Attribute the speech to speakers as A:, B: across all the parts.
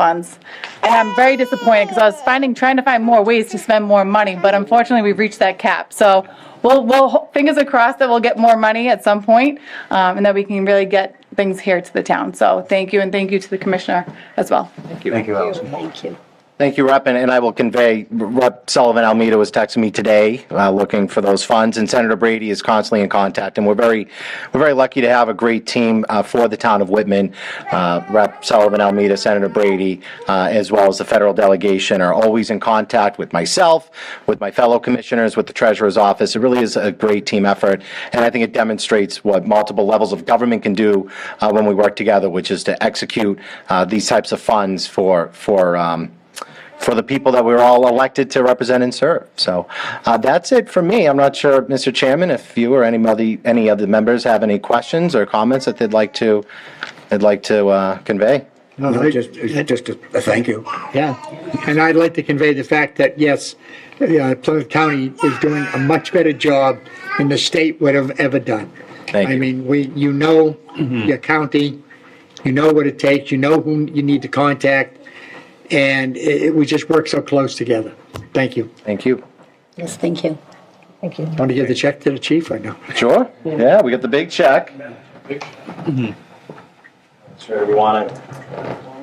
A: funds. And I'm very disappointed because I was finding, trying to find more ways to spend more money, but unfortunately, we've reached that cap. So we'll, we'll, ho- fingers are crossed that we'll get more money at some point, um, and that we can really get things here to the town. So thank you, and thank you to the commissioner as well.
B: Thank you, Allison.
C: Thank you.
B: Thank you, Rep, and and I will convey, Rep Sullivan Almeida was texting me today, uh, looking for those funds, and Senator Brady is constantly in contact, and we're very, we're very lucky to have a great team uh, for the town of Whitman. Uh, Rep Sullivan Almeida, Senator Brady, uh, as well as the federal delegation are always in contact with myself, with my fellow commissioners, with the treasurer's office. It really is a great team effort, and I think it demonstrates what multiple levels of government can do uh, when we work together, which is to execute uh, these types of funds for, for, um, for the people that we were all elected to represent and serve. So uh, that's it for me. I'm not sure, Mr. Chairman, if you or any of the, any of the members have any questions or comments that they'd like to, they'd like to uh, convey.
D: No, just, just a a thank you.
E: Yeah, and I'd like to convey the fact that, yes, uh, Plymouth County is doing a much better job than the state would have ever done.
B: Thank
E: I
B: you.
E: mean, we, you know
D: Mm-hmm.
E: your county, you know what it takes, you know whom you need to contact, and it, it- we just work so close together. Thank you.
B: Thank you.
C: Yes, thank you. Thank you.
E: Want to give the check to the chief right now?
B: Sure? Yeah, we got the big check. Sure, we want to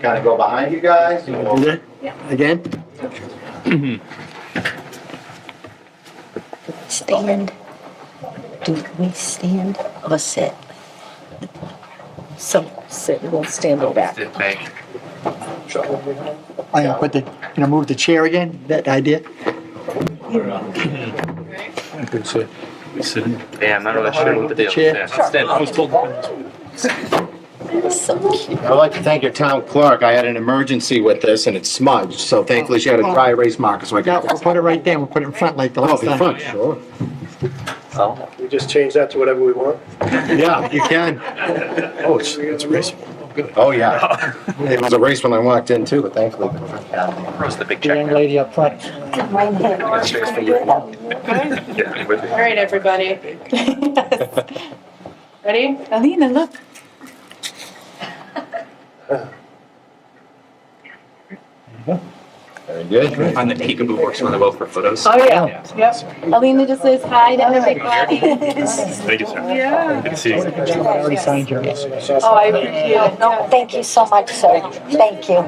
B: kind of go behind you guys.
E: Is it? Again?
C: Stand. Do we stand or sit? So sit, we'll stand or back.
E: I uh, put the, you know, move the chair again, that idea?
F: Yeah, I'm not really sure what the deal is.
E: Chair.
F: Yeah, I'll stand.
C: So cute.
B: I'd like to thank your town clerk. I had an emergency with this and it smudged, so thankfully she had a dry erase marker so I
E: No,
B: could.
E: we'll put it right there, we'll put it in front like the
B: Oh,
E: last
B: in
E: time.
B: front, sure.
G: We just change that to whatever we want.
B: Yeah, you can.
G: Oh, it's, it's reasonable.
B: Oh, yeah. It was a race when I walked in too, but thankfully.
F: Where's the big
E: The young
F: check?
E: lady up front.
C: Right hand.
F: Yeah, I'm with you.
H: All right, everybody. Ready?
A: Alina, look.
B: Very good.
F: Find the peekaboo works really well for photos.
H: Oh, yeah. Yep. Alina just says hi to everybody.
F: Thank you, sir.
H: Yeah.
F: Good to see you.
E: I already signed yours.
H: Oh, I appreciate it.
C: No, thank you so much, sir. Thank you.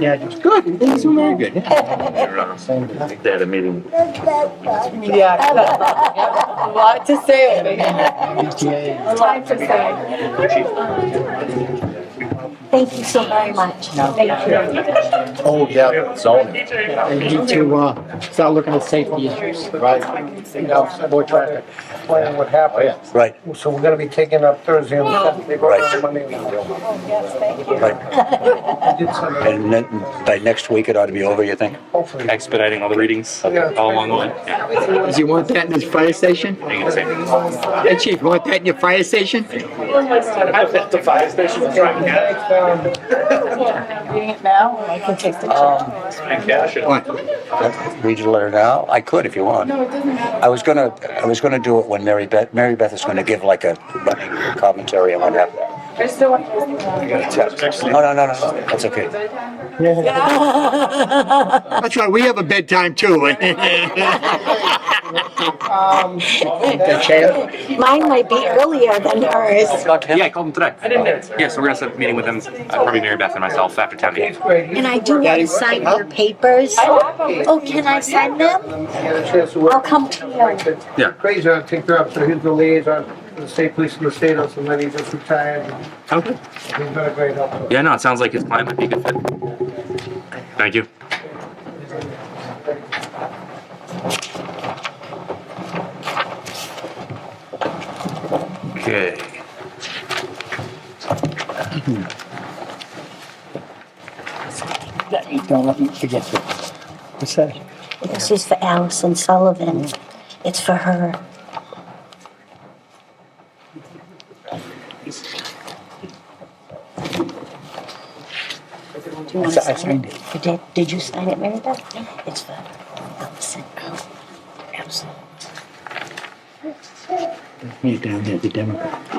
E: Yeah, just good. These are very good.
F: They had a meeting.
H: Yeah. A lot to say. A lot to say.
C: Thank you so very much. Thank you.
B: Oh, yeah, zoning,
E: I need to, uh, start looking at safety issues,
B: right.
E: you know, more traffic.
I: plan what
B: Oh,
I: happened.
B: yeah.
D: Right.
I: So we're gonna be taking up Thursday and Saturday,
D: Right.
I: Monday and Wednesday.
H: Yes, thank you.
D: And then by next week, it ought to be over, you think?
I: Hopefully.
F: Expediting all the readings all along the way. Yeah,
E: Does you want that in this fire station?
F: I think it's safe.
E: Hey, chief, you want that in your fire station?
G: I've left the fire station to try and get
A: Reading it now, or I can take the check.
F: And cash it.
E: What?
D: Read your letter now? I could if you want.
A: No, it doesn't matter.
D: I was gonna, I was gonna do it when Mary Beth, Mary Beth is gonna give like a running commentary on what happened. uh,
A: I just don't want.
D: No, no, no, no, that's okay.
E: That's right, we have a bedtime too. The chair?
C: Mine might be earlier than yours.
F: Yeah, I called them today. I didn't answer. Yeah, so we're gonna set up a meeting with them, uh, probably Mary Beth and myself after town meeting.
C: And I do want to sign your papers. Oh, can I sign them? I'll come to you.
F: Yeah.
I: Crazy, I'll take her up, so he's the liaison for the state police in the state, and then he just retired.
F: Okay.
I: He's been a great help.
F: Yeah, no, it sounds like his client might be a good fit. Thank you. Okay.
E: Don't let me forget that. What's that?
C: This is for Allison Sullivan. It's for her. Do you want to
E: I
C: sign
E: signed
C: it? You did? Did you sign it, Mary Beth? It's for oh, Allison. Allison.
E: Me down there, the Democrat.